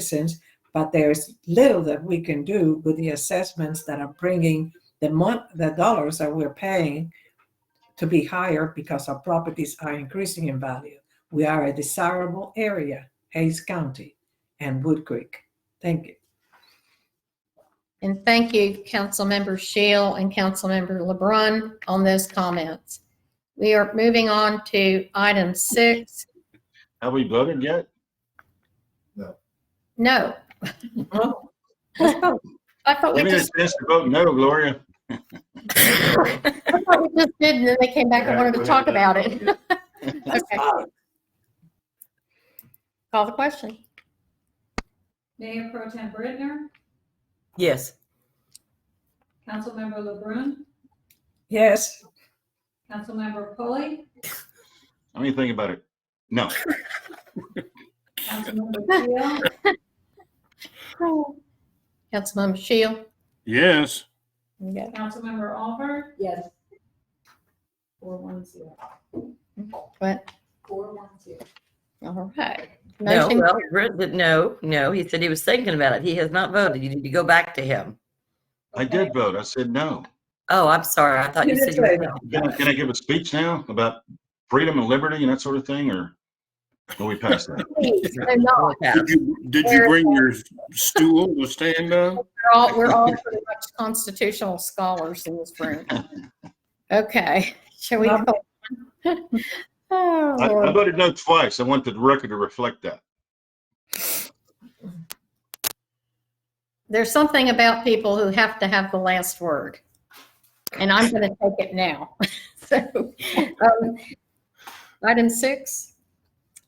citizens, but there's little that we can do with the assessments that are bringing the month, the dollars that we're paying to be higher because our properties are increasing in value. We are a desirable area, Hayes County and Wood Creek. Thank you. And thank you, Councilmember Shield and Councilmember LeBrun on those comments. We are moving on to item six. Have we voted yet? No, Oh, let's vote. I thought we Give me a just, chance to vote no, Gloria. I thought we just did, and then they came back and wanted to talk about it. Let's Okay. vote. Call the question. Mayor Pro Tem Britner, Yes. Councilmember LeBrun, Yes, Councilmember Pulley, Let me think about it. No. Councilmember Keel, Councilmember Shield. Yes. Yeah. Councilmember Alver. Yes. Four one zero. But, Four one zero. all right. No, Motion- well, Brent did, no, no, he said he was thinking about it. He has not voted. You need to go back to him. I did vote. I said no. Oh, I'm sorry. I thought You you did said you were say thinking. Can I, can I give a speech now about freedom and liberty and that sort of thing, or will we pass that? Please, they're not. about it. Did you, did you bring your stool to stand on? We're all, we're all pretty much constitutional scholars in this room. Okay, shall we? Love Oh, I, I Lord. voted no twice. I want the record to reflect that. There's something about people who have to have the last word. And I'm going to take it now. So, um, item six,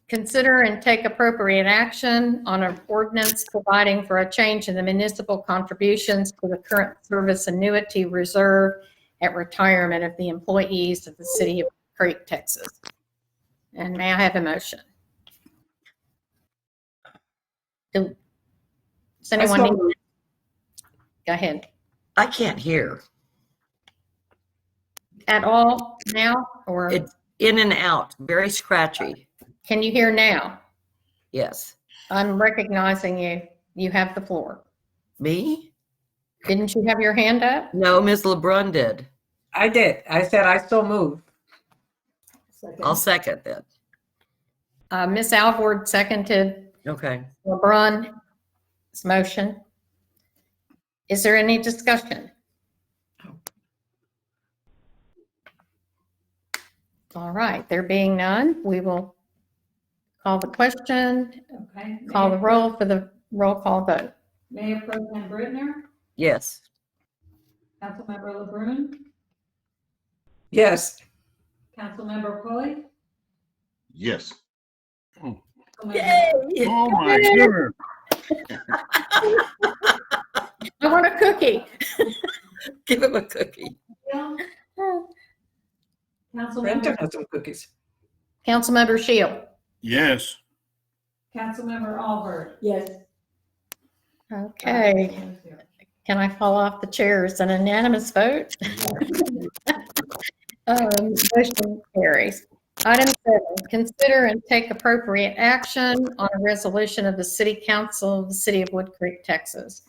consider and take appropriate action on an ordinance providing for a change in the municipal contributions to the current service annuity reserve at retirement of the employees of the city of Creek, Texas. And may I have a motion? Do- Does Let's anyone need? vote. Go ahead. I can't hear. At all now, or It- In and out, very scratchy. can you hear now? Yes. I'm recognizing you. You have the floor. Me? Didn't you have your hand up? No, Ms. LeBrun did. I did. I said I still move. I'll second that. Uh, Ms. Alvord seconded Okay. LeBron's motion. Is there any discussion? All right, there being none, we will call the question, Okay. call the Mayor- roll for the roll call vote. Mayor Pro Tem Britner, Yes. Councilmember LeBrun, Yes, Councilmember Pulley, Yes. Councilmember Oh, my goodness. I want a cookie. Give him a cookie. Keel, Brenton Councilmember, has some cookies. Councilmember Shield. Yes. Councilmember Alver. Yes. Okay. Um, Can I fall off the chair? It's an unanimous vote. Um, Motion carries. Item seven, consider and take appropriate action on a resolution of the City Council of the City of Wood Creek, Texas,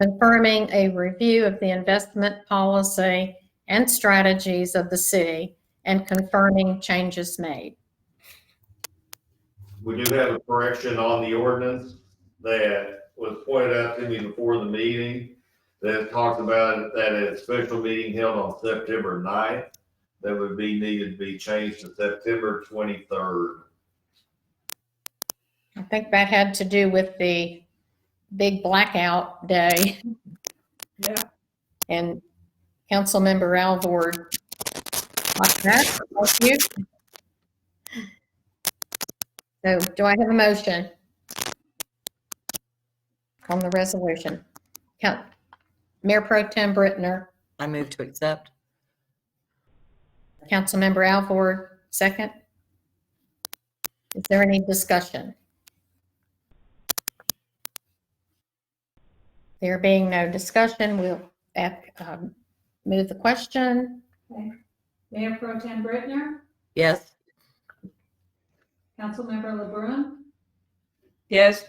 confirming a review of the investment policy and strategies of the city and confirming changes made. We do have a correction on the ordinance that was pointed out to me before the meeting that talked about that a special meeting held on September 9th that would be needed to be changed to September twenty-third. I think that had to do with the big blackout day. Yeah. And Councilmember Alvord. like that, like you. So do I have a motion? On the resolution? Count- Mayor Pro Tem Brittner, I move to accept. Councilmember Alvord, second. Is there any discussion? There being no discussion, we'll uh, um, move the question. Mayor Pro Tem Britner, Yes. Councilmember LeBrun, Yes,